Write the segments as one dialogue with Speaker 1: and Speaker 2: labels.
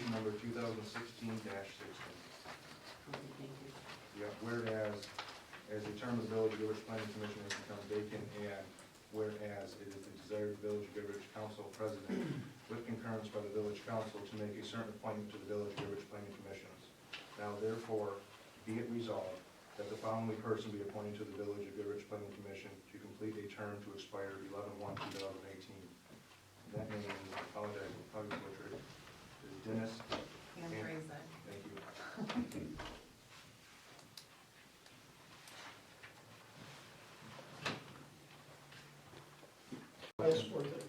Speaker 1: thousand sixteen sixteen.
Speaker 2: Thank
Speaker 1: Yeah, whereas, as the term of the Village of Goodrich Planning Commission has become vacant, and whereas it is the desire of the Village of Goodrich Council President with concurrence by the Village Council to make a certain appointment to the Village of Goodrich Planning Commissions. Now therefore, be it resolved that the following person be appointed to the Village of Goodrich Planning Commission to complete a term to expire eleven one two thousand eighteen. That name, I apologize, I'll probably butcher it, is Dennis,
Speaker 2: you. Anne Fraser.
Speaker 1: thank you.
Speaker 3: I support that.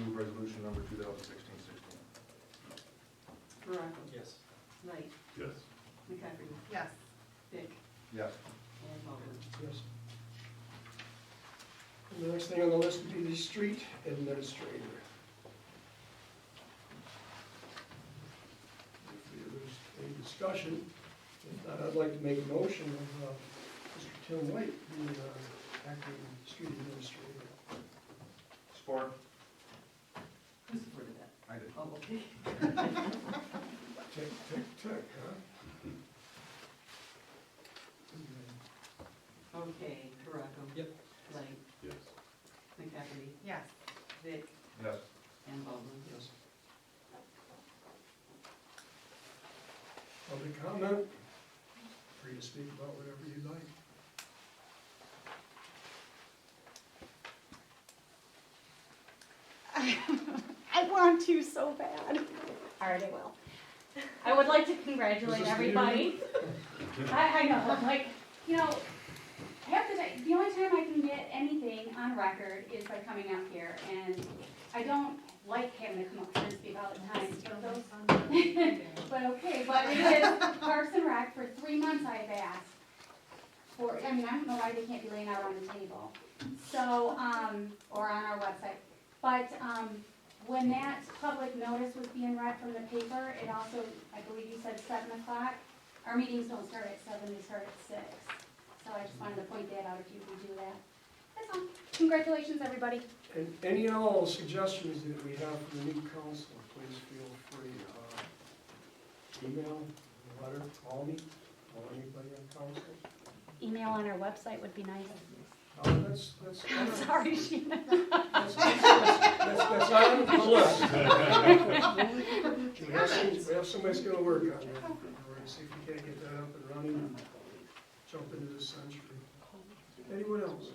Speaker 1: Move resolution number 2016-16.
Speaker 2: Veronica.
Speaker 3: Yes.
Speaker 2: Knight.
Speaker 4: yes,
Speaker 2: McCaffrey. Yes. Dick.
Speaker 1: Yes.
Speaker 2: And Mulder.
Speaker 3: Yes. And the next thing on the list would be the street administrator. If there's a discussion, if not, I'd like to make a motion of uh, Mr. Tim White, the uh, acting street administrator.
Speaker 1: Support?
Speaker 2: Who supported that?
Speaker 1: I did.
Speaker 2: Oh, okay.
Speaker 3: Tick, tick, tick, huh?
Speaker 2: Okay, Veronica.
Speaker 3: Yep.
Speaker 2: Knight.
Speaker 4: yes,
Speaker 2: McCaffrey. Yes. Dick.
Speaker 1: Yes.
Speaker 2: And Mulder.
Speaker 3: Yes. Public comment, free to speak about whatever you like.
Speaker 5: I want to so bad. All right, I will. I would like to congratulate
Speaker 3: Is this the
Speaker 5: everybody. I, I know, I'm like, you know, half the time, the only time I can get anything on record is by coming up here, and I don't like having to come up here and speak all the time. but those- But okay, but it is Parks and Rec, for three months I've asked for, I mean, I don't know why they can't be laying out on the table. So, um, or on our website, but, um, when that public notice was being read from the paper, it also, I believe you said seven o'clock. Our meetings don't start at seven, they start at six. So I just wanted to point that out if you can do that. That's all. Congratulations, everybody.
Speaker 3: And any and all suggestions that we have for the new council, please feel free, uh, email, letter, call me, call anybody on council.
Speaker 5: Email on our website would be nice.
Speaker 3: Uh, that's, that's.
Speaker 5: I'm sorry, Sheena.
Speaker 3: That's, that's, that's that's not on the list. We have some, we have somebody's gonna work on that. We're gonna see if we can't get that up and running and jump into this century. Anyone else?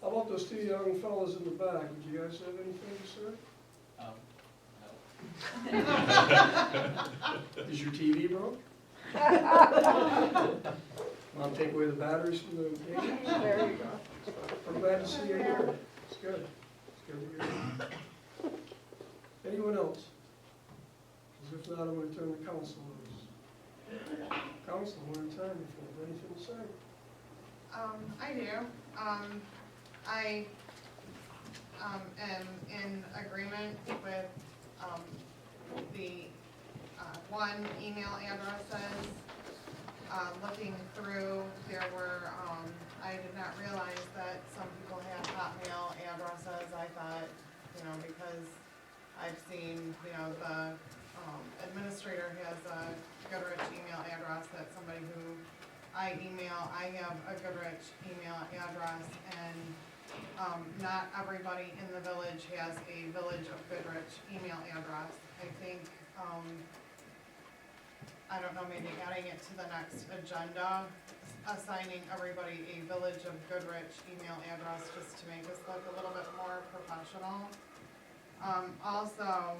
Speaker 3: How about those two young fellas in the back? Would you guys have anything
Speaker 6: Um,
Speaker 3: to say? Is your TV broke? Want to take away the batteries from the? There you go. I'm glad to see you here. It's good. It's good to hear. you. Anyone else? 'Cause if not, I'm gonna turn to council. notice. Council, one at a time, if you have anything to say.
Speaker 7: Um, I do. Um, I, um, am in agreement with, um, the, uh, one email addresses. Uh, looking through, there were, um, I did not realize that some people had hotmail addresses. I thought, you know, because I've seen, you know, the, um, administrator has a Goodrich email address that somebody who I email, I have a Goodrich email address, and, um, not everybody in the village has a Village of Goodrich email address. I think, um, I don't know, maybe adding it to the next agenda, assigning everybody a Village of Goodrich email address, just to make us look a little bit more professional. Um, also,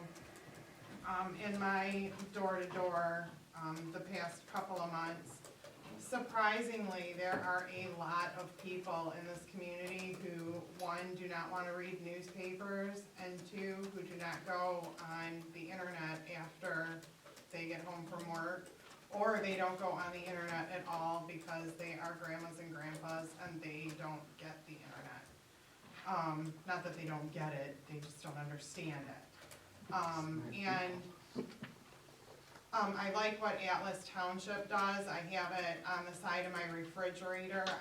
Speaker 7: um, in my door-to-door, um, the past couple of months, surprisingly, there are a lot of people in this community who, one, do not want to read newspapers, and two, who do not go on the internet after they get home from work, or they don't go on the internet at all because they are grandmas and grandpas and they don't get the internet. Um, not that they don't get it, they just don't understand it. Um, and um, I like what Atlas Township does, I have it on the side of my refrigerator,